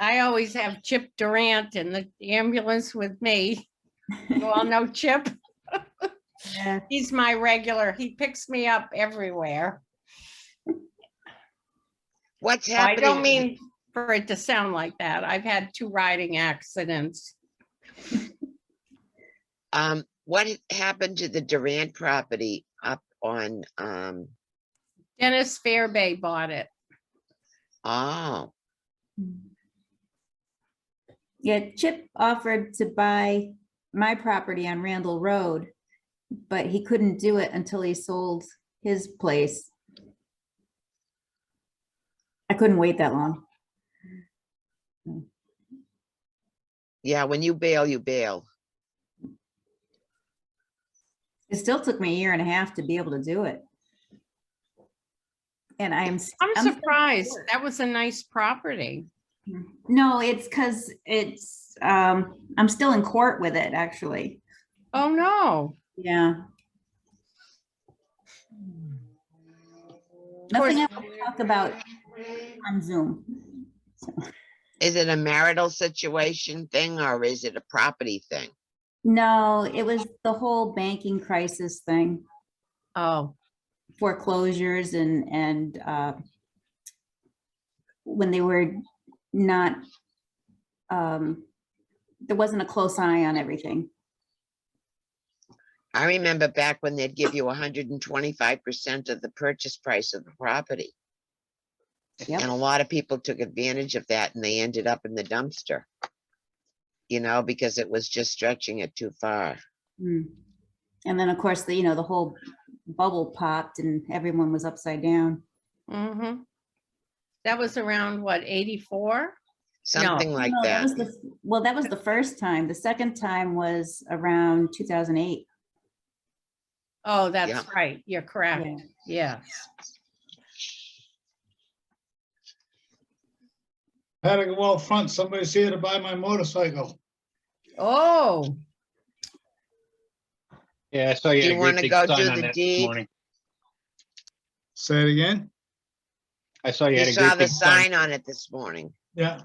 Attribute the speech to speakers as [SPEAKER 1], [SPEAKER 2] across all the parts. [SPEAKER 1] I always have Chip Durant in the ambulance with me. You all know Chip?
[SPEAKER 2] Yeah.
[SPEAKER 1] He's my regular. He picks me up everywhere.
[SPEAKER 3] What's
[SPEAKER 1] So Oh, I
[SPEAKER 3] happening?
[SPEAKER 1] don't mean for it to sound like that. I've had two riding accidents.
[SPEAKER 3] Um, what happened to the Durant property up on, um,
[SPEAKER 1] Dennis Fairbay bought it.
[SPEAKER 3] oh,
[SPEAKER 2] Yeah, Chip offered to buy my property on Randall Road, but he couldn't do it until he sold his place. I couldn't wait that long.
[SPEAKER 3] yeah, when you bail, you bail.
[SPEAKER 2] It still took me a year and a half to be able to do it. And I am. s-
[SPEAKER 1] I'm
[SPEAKER 2] still-
[SPEAKER 1] surprised. That was a nice property.
[SPEAKER 2] No, it's because it's, um, I'm still in court with it, actually.
[SPEAKER 1] Oh, no.
[SPEAKER 2] Yeah. Nothing I want to talk about on Zoom.
[SPEAKER 3] Is it a marital situation thing or is it a property thing?
[SPEAKER 2] No, it was the whole banking crisis thing,
[SPEAKER 1] Oh,
[SPEAKER 2] foreclosures and, and uh, when they were not, um, there wasn't a close eye on everything.
[SPEAKER 3] I remember back when they'd give you hundred and twenty-five percent of the purchase price of the property.
[SPEAKER 2] Yep.
[SPEAKER 3] And a lot of people took advantage of that and they ended up in the dumpster. You know, because it was just stretching it too far.
[SPEAKER 2] Mm. And then, of course, the, you know, the whole bubble popped and everyone was upside down.
[SPEAKER 1] mm-hmm. That was around, what, 84?
[SPEAKER 3] Something like
[SPEAKER 2] No,
[SPEAKER 3] that.
[SPEAKER 2] was the f- Well, that was the first time. The second time was around 2008.
[SPEAKER 1] Oh,
[SPEAKER 3] Yeah.
[SPEAKER 1] that's right. You're correct. Yeah.
[SPEAKER 4] I Had to go out front, somebody's here to buy my motorcycle.
[SPEAKER 1] Oh,
[SPEAKER 5] Yeah, I saw you
[SPEAKER 3] Do
[SPEAKER 5] had
[SPEAKER 3] you
[SPEAKER 5] a great
[SPEAKER 3] wanna
[SPEAKER 5] big
[SPEAKER 3] go
[SPEAKER 5] sign
[SPEAKER 3] do
[SPEAKER 5] on
[SPEAKER 3] the
[SPEAKER 5] that
[SPEAKER 3] deed?
[SPEAKER 5] this morning.
[SPEAKER 4] Say it again?
[SPEAKER 5] I saw you
[SPEAKER 3] You
[SPEAKER 5] had a
[SPEAKER 3] saw
[SPEAKER 5] great
[SPEAKER 3] the
[SPEAKER 5] big sign.
[SPEAKER 3] sign on it this morning.
[SPEAKER 4] Yeah.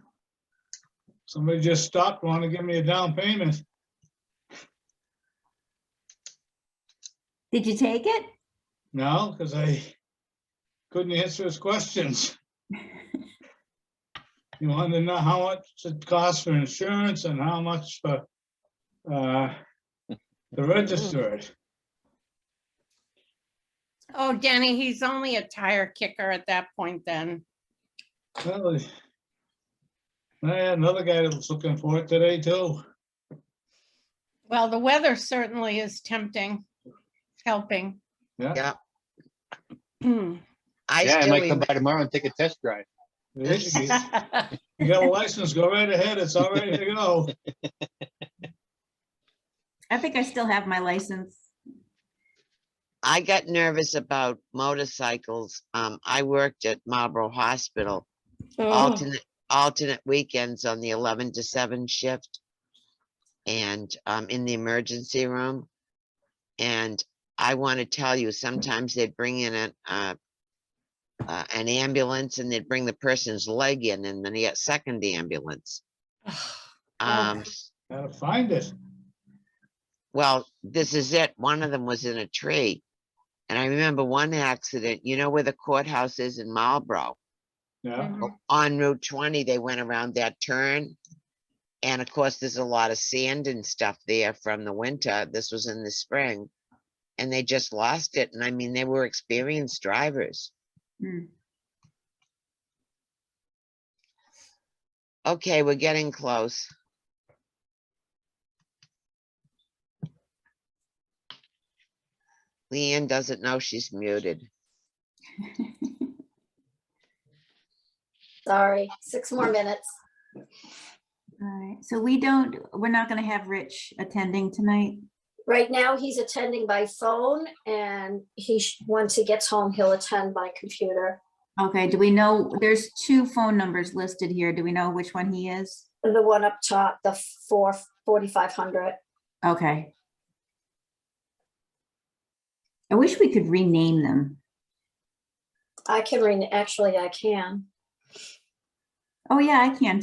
[SPEAKER 4] Somebody just stopped, wanted to give me a down payment.
[SPEAKER 2] Did you take it?
[SPEAKER 4] No, because I couldn't answer his questions. He wanted to know how much it costs for insurance and how much for, uh, to register it.
[SPEAKER 1] oh, Denny, he's only a tire kicker at that point then.
[SPEAKER 4] Well, I had another guy that was looking for it today too.
[SPEAKER 1] Well, the weather certainly is tempting, helping.
[SPEAKER 3] Yeah.
[SPEAKER 4] Yeah.
[SPEAKER 1] Hmm.
[SPEAKER 3] I
[SPEAKER 5] Yeah, I might
[SPEAKER 3] still,
[SPEAKER 5] come
[SPEAKER 3] rem-
[SPEAKER 5] by tomorrow and take a test drive.
[SPEAKER 4] You got a license, go right ahead, it's all ready to go.
[SPEAKER 2] I think I still have my license.
[SPEAKER 3] I got nervous about motorcycles. Um, I worked at Marlboro Hospital
[SPEAKER 1] Oh,
[SPEAKER 3] alternate, alternate weekends on the eleven to seven shift. And, um, in the emergency room. And I want to tell you, sometimes they'd bring in an, uh, uh, an ambulance and they'd bring the person's leg in and then they get second ambulance. Um,
[SPEAKER 4] Gotta find it.
[SPEAKER 3] well, this is it. One of them was in a tree. And I remember one accident, you know where the courthouse is in Marlboro?
[SPEAKER 4] Yeah,
[SPEAKER 1] Mhm.
[SPEAKER 3] on Route twenty, they went around that turn. And of course, there's a lot of sand and stuff there from the winter. This was in the spring. And they just lost it. And I mean, they were experienced drivers.
[SPEAKER 2] Hmm.
[SPEAKER 3] Okay, we're getting close. Leanne doesn't know she's muted.
[SPEAKER 6] Sorry, six more minutes.
[SPEAKER 2] All right, so we don't, we're not gonna have Rich attending tonight.
[SPEAKER 6] Right now, he's attending by phone and he, sh- once he gets home, he'll attend by computer.
[SPEAKER 2] Okay, do we know, there's two phone numbers listed here. Do we know which one he is?
[SPEAKER 6] The one up top, the four, forty-five hundred.
[SPEAKER 2] Okay. I wish we could rename them.
[SPEAKER 6] I can ring, actually, I can.
[SPEAKER 2] Oh, yeah, I can